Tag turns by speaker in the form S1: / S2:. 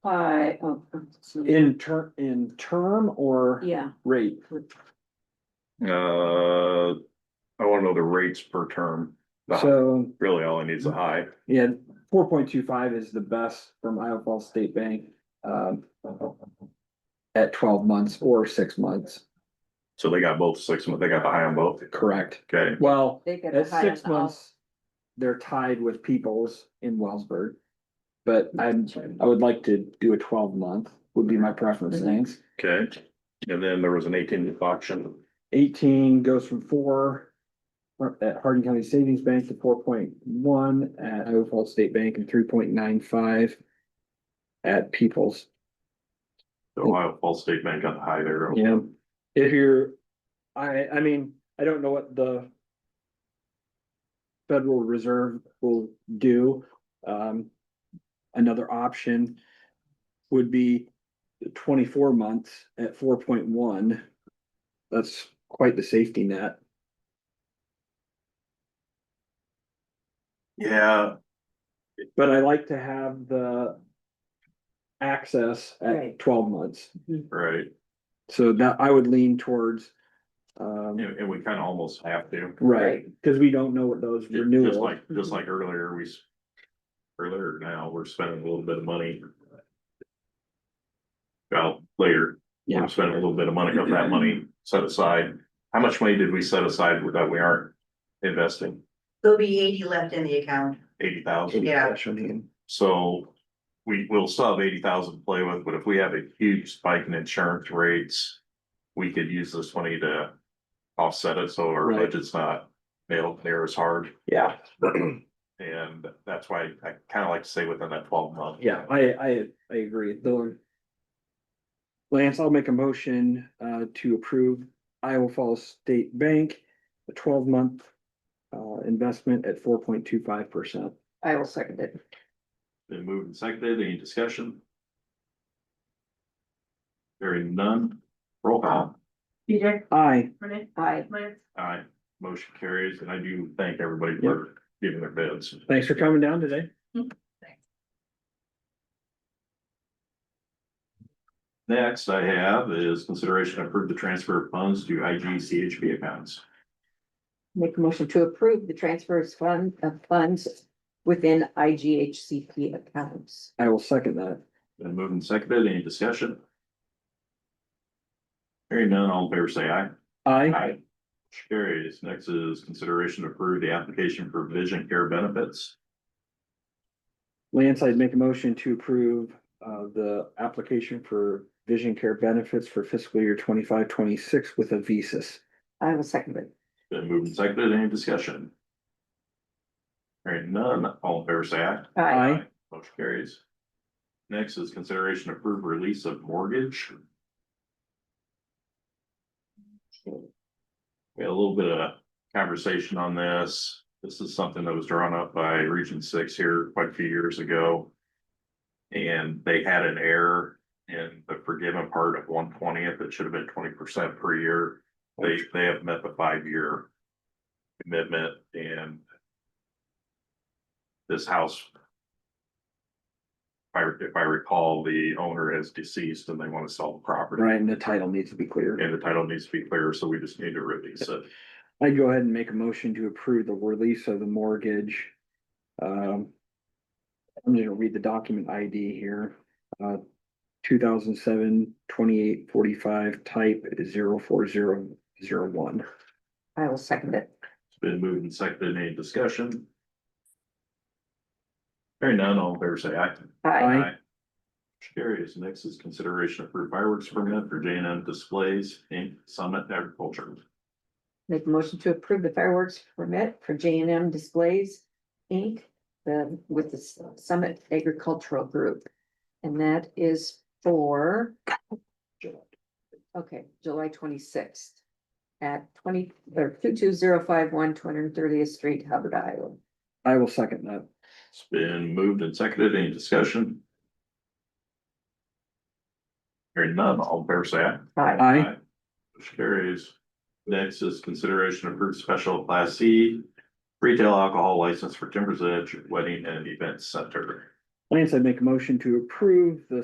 S1: I, oh.
S2: In ter, in term or
S1: Yeah,
S2: rate?
S3: Uh, I wanna know the rates per term. The hi-
S2: So,
S3: Really, all I need is a high.
S2: yeah, four point two five is the best from Iowa Falls State Bank, um. At twelve months or six months,
S3: So they got both six months, they got the high on both.
S2: correct?
S3: Okay,
S2: Well,
S1: they get the
S2: at
S1: high on
S2: six
S1: the all.
S2: months, they're tied with Peoples in Wellsburg. But
S1: Mm-hmm.
S2: I'm, I would like to do a twelve month would be my preference,
S1: Mm-hmm.
S2: thanks.
S3: okay. And then there was an eighteen month option.
S2: Eighteen goes from four at Hardin County Savings Bank to four point one at Iowa Falls State Bank and three point nine five at Peoples.
S3: The Ohio Falls State Bank got the high there.
S2: Yeah, if you're, I, I mean, I don't know what the Federal Reserve will do. Um, another option would be twenty-four months at four point one. That's quite the safety net.
S3: Yeah,
S2: But I like to have the access at
S1: Right.
S2: twelve months,
S3: right.
S2: so that I would lean towards. Um,
S3: And, and we kinda almost have to.
S2: right, cause we don't know what those
S3: Ju-
S2: renewals.
S3: Just like, just like earlier, we. s- Earlier now, we're spending a little bit of money. Well, later,
S2: Yeah.
S3: we're spending a little bit of money of that money set aside. How much money did we set aside that we aren't investing?
S4: There'll be eighty left in the account.
S3: Eighty thousand.
S4: Yeah.
S3: So we will still have eighty thousand to play with, but if we have a huge spike in insurance rates. We could use this money to offset it, so our
S2: Right.
S3: budget's not nailed there as hard.
S2: Yeah,
S3: And that's why I kind of like to say within that twelve month.
S2: yeah, I, I, I agree, though. Lance, I'll make a motion, uh, to approve Iowa Falls State Bank, a twelve month. Uh, investment at four point two five percent.
S1: I will second it.
S3: Been moved and seconded. Any discussion? Hearing none. Roll call.
S4: Peter,
S2: Aye,
S4: Renee,
S1: I,
S4: Lance,
S3: Aye. Motion carries, and I do thank everybody for giving their bids.
S2: thanks for coming down today.
S3: Next I have is consideration to approve the transfer of funds to I G C H P accounts.
S1: make a motion to approve the transfers fund of funds within IGHCP accounts.
S2: I will second that.
S3: Been moved and seconded. Any discussion? Hearing none, all in favor say aye.
S2: Aye,
S3: Aye. Motion Carries. Next is consideration to approve the application for vision care benefits.
S2: Lance, I'd make a motion to approve, uh, the application for vision care benefits for fiscal year twenty-five, twenty-six with a Visas.
S1: I will second it.
S3: Been moved and seconded, any discussion? Hearing none, all in favor say aye.
S1: I,
S2: Aye.
S3: Motion carries. Next is consideration to approve release of mortgage. We had a little bit of conversation on this. This is something that was drawn up by Region Six here quite a few years ago. And they had an error in the forgiven part of one twentieth. It should have been twenty percent per year. They, they have met the five-year commitment and this house if I, if I recall, the owner is deceased and they want to sell the property.
S2: Right, and the title needs to be clear.
S3: And the title needs to be clear, so we just need to release it.
S2: I'd go ahead and make a motion to approve the release of the mortgage. Um. I'm just gonna read the document ID here, uh, 2007 2845 type zero four zero zero one.
S1: I will second it.
S3: It's been moved and seconded. Any discussion? Hearing none, all in favor say aye.
S1: I,
S2: Aye.
S3: Motion Carries. Next is consideration of fireworks permit for J and M Displays Inc. Summit Agriculture.
S1: make a motion to approve the fireworks permit for J and M Displays, Inc. The, with the Summit Agricultural Group. And that is for Okay, July twenty-sixth at twenty, or two-two-zero-five-one, two-hundred-and-thirtieth Street, Hubbard, Iowa.
S2: I will second that.
S3: It's been moved and seconded. Any discussion? Hearing none, all in favor say aye.
S1: Aye.
S2: Aye,
S3: Motion carries. Next is consideration of approved special class C retail alcohol license for Timbers Edge Wedding and Event Center.
S2: Lance, I'd make a motion to approve the